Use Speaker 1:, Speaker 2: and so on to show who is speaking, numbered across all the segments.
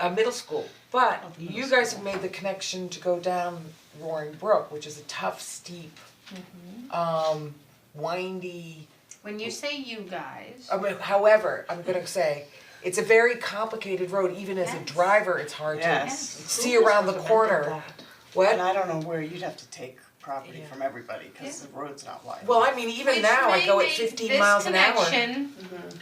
Speaker 1: uh middle school, but
Speaker 2: Oh, the middle
Speaker 1: you guys have made the connection to go down Roaring Brook, which is a tough, steep,
Speaker 3: Mm-hmm.
Speaker 1: um, windy,
Speaker 3: When you say you guys,
Speaker 1: I mean, however, I'm gonna say, it's a very complicated road, even as a
Speaker 3: Mm-hmm. Yes.
Speaker 1: driver, it's hard to
Speaker 4: Yes.
Speaker 1: see around the corner.
Speaker 4: And
Speaker 1: What?
Speaker 4: I don't know where you'd have to take property
Speaker 1: Yeah.
Speaker 4: from everybody, cause
Speaker 3: Yeah.
Speaker 4: the road's not wide.
Speaker 1: Well, I mean, even
Speaker 3: which
Speaker 1: now, I
Speaker 3: may
Speaker 1: go at
Speaker 3: make
Speaker 1: fifteen
Speaker 3: this
Speaker 1: miles an hour.
Speaker 3: connection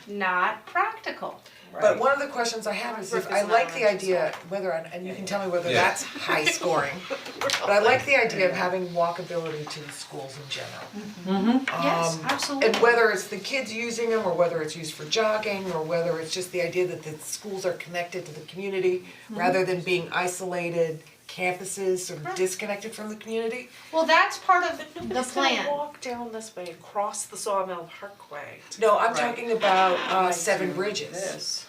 Speaker 3: not practical.
Speaker 1: But one of the questions I have is if
Speaker 3: Brooke is
Speaker 1: I like
Speaker 3: not
Speaker 1: the
Speaker 3: on
Speaker 1: idea, whether, I'm- and you can tell me whether
Speaker 5: Yeah.
Speaker 1: that's high scoring. But I like the idea of having walkability to the schools in general.
Speaker 3: Yes,
Speaker 1: Um,
Speaker 3: absolutely.
Speaker 1: And whether it's the kids using them, or whether it's used for jogging, or whether it's just the idea that the schools are connected to the community, rather than being isolated campuses, sort of disconnected from the community.
Speaker 3: Well, that's part of the
Speaker 6: Nobody's gonna
Speaker 3: plan.
Speaker 6: walk down this way, across the Sawmill Parkway.
Speaker 1: No, I'm
Speaker 4: Right.
Speaker 1: talking about uh Seven
Speaker 4: Do
Speaker 1: Bridges,
Speaker 4: This,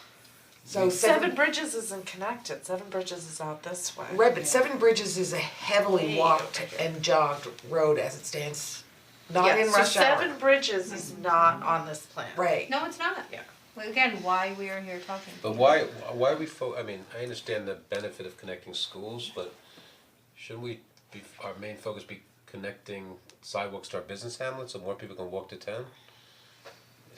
Speaker 1: so
Speaker 6: Seven
Speaker 1: Seven,
Speaker 6: Bridges isn't connected, Seven Bridges is out this way.
Speaker 1: right, but Seven Bridges is a heavily
Speaker 6: Way
Speaker 1: walked and jogged road as it stands, not in
Speaker 6: Yeah, so
Speaker 1: rush hour.
Speaker 6: Seven Bridges is not on this plan.
Speaker 1: Right,
Speaker 3: No, it's not.
Speaker 6: Yeah.
Speaker 3: Well, again, why we are here talking.
Speaker 5: But why, why are we fo- I mean, I understand the benefit of connecting schools, but shouldn't we be, our main focus be connecting sidewalks to our business hamlets so more people can walk to town?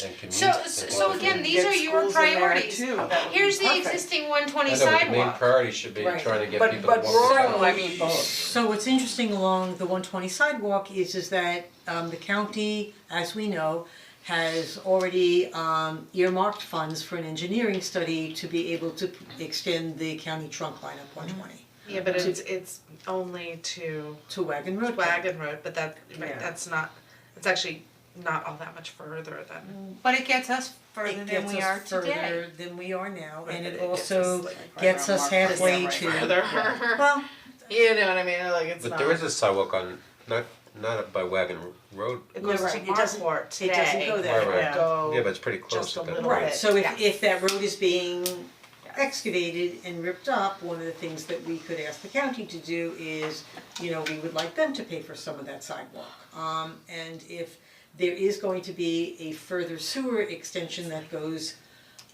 Speaker 5: And commute.
Speaker 3: So,
Speaker 5: and
Speaker 3: so
Speaker 5: walk.
Speaker 3: again, these
Speaker 4: Get
Speaker 3: are your
Speaker 4: schools in there
Speaker 3: priorities.
Speaker 4: too, that would be
Speaker 3: Here's the
Speaker 4: perfect.
Speaker 3: existing one twenty
Speaker 5: I know, but
Speaker 3: sidewalk.
Speaker 5: the main priority should be
Speaker 1: Right.
Speaker 5: trying to get
Speaker 1: But-
Speaker 5: people to
Speaker 1: but
Speaker 5: walk to town.
Speaker 1: rural-
Speaker 4: I mean, both.
Speaker 2: So what's interesting along the one twenty sidewalk is is that um the county, as we know, has already um earmarked funds for an engineering study to be able to p- extend the county trunk line up one twenty
Speaker 6: Yeah, but it's it's only to
Speaker 2: to Wagon Road.
Speaker 6: Wagon Road, but that,
Speaker 4: Yeah.
Speaker 6: right, that's not, it's actually not all that much further
Speaker 2: Mm.
Speaker 6: than.
Speaker 3: But it gets us further
Speaker 2: It
Speaker 3: than
Speaker 2: gets
Speaker 3: we are
Speaker 2: us
Speaker 3: today.
Speaker 2: further than we are now, and
Speaker 6: It
Speaker 2: it
Speaker 6: gets us,
Speaker 2: also
Speaker 4: like, right
Speaker 2: gets
Speaker 4: around
Speaker 2: us
Speaker 4: Market Street,
Speaker 2: halfway
Speaker 4: right
Speaker 2: to,
Speaker 4: around
Speaker 2: well,
Speaker 6: You know what I mean, like it's
Speaker 5: But
Speaker 6: not,
Speaker 5: there is a sidewalk on, not, not up by Wagon Road,
Speaker 6: it
Speaker 2: You're
Speaker 6: goes to
Speaker 2: right, it doesn't-
Speaker 6: Marquardt
Speaker 2: it
Speaker 6: today.
Speaker 2: doesn't go there.
Speaker 5: Right, right.
Speaker 6: It would
Speaker 5: yeah,
Speaker 6: go
Speaker 5: but it's pretty close
Speaker 6: just a
Speaker 5: at that
Speaker 6: little
Speaker 5: point.
Speaker 2: Right, so
Speaker 6: Yeah.
Speaker 2: if if that road is being
Speaker 6: Yeah.
Speaker 2: excavated and ripped up, one of the things that we could ask the county to do is, you know, we would like them to pay for some of that sidewalk. Um and if there is going to be a further sewer extension that goes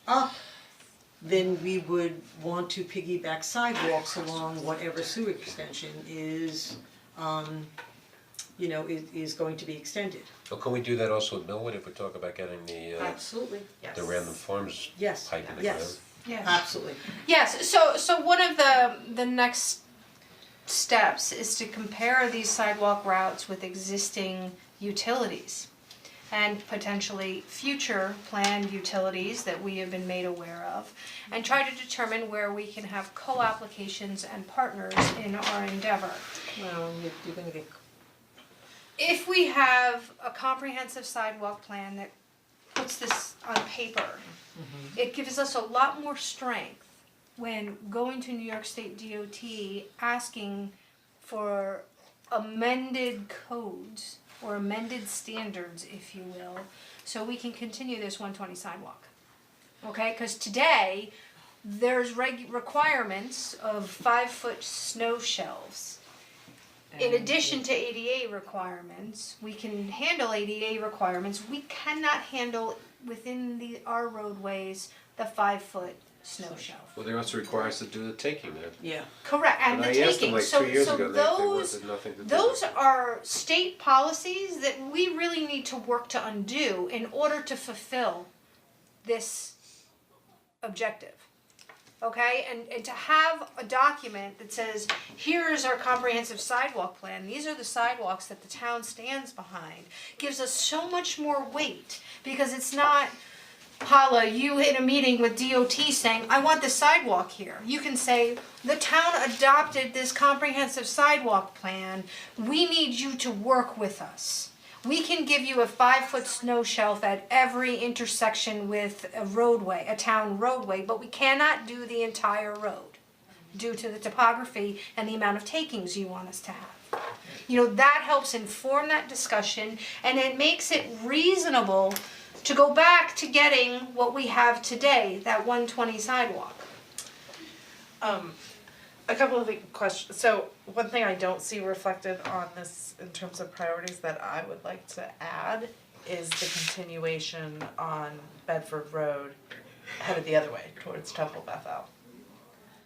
Speaker 2: up, then we would want to piggyback sidewalks along whatever sewer extension is um you know, is is going to be extended.
Speaker 5: But can we do that also at Millwood if we talk about getting the uh,
Speaker 2: Absolutely.
Speaker 6: yes.
Speaker 5: the random farms
Speaker 2: Yes,
Speaker 5: pipe in the ground?
Speaker 2: yes,
Speaker 3: Yes.
Speaker 2: absolutely.
Speaker 3: Yes, so so one of the the next steps is to compare these sidewalk routes with existing utilities and potentially future planned utilities that we have been made aware of and try to determine where we can have co-applications and partners in our endeavor.
Speaker 2: Well, you're you're gonna get
Speaker 3: If we have a comprehensive sidewalk plan that puts this on paper, it gives us a lot more strength when going to New York State DOT asking for amended codes or amended standards, if you will, so we can continue this one twenty sidewalk. Okay, cause today, there's reg- requirements of five-foot snow shelves. In addition to ADA requirements, we can handle ADA requirements, we cannot handle within the, our roadways, the five-foot snow shelf.
Speaker 5: Well, they also require us to do the taking there.
Speaker 2: Yeah.
Speaker 3: Correct, and the taking, so, so those,
Speaker 5: nothing to
Speaker 3: those are state policies that we really need to work to undo in order to fulfill this objective. Okay, and and to have a document that says, here is our comprehensive sidewalk plan, these are the sidewalks that the town stands behind, gives us so much more weight, because it's not Paula, you in a meeting with DOT saying, I want this sidewalk here. You can say, the town adopted this comprehensive sidewalk plan, we need you to work with us. We can give you a five-foot snow shelf at every intersection with a roadway, a town roadway, but we cannot do the entire road due to the topography and the amount of takings you want us to have. You know, that helps inform that discussion and it makes it reasonable to go back to getting what we have today, that one twenty sidewalk.
Speaker 6: Um, a couple of the questions, so one thing I don't see reflected on this in terms of priorities that I would like to add is the continuation on Bedford Road headed the other way towards Temple Bethel.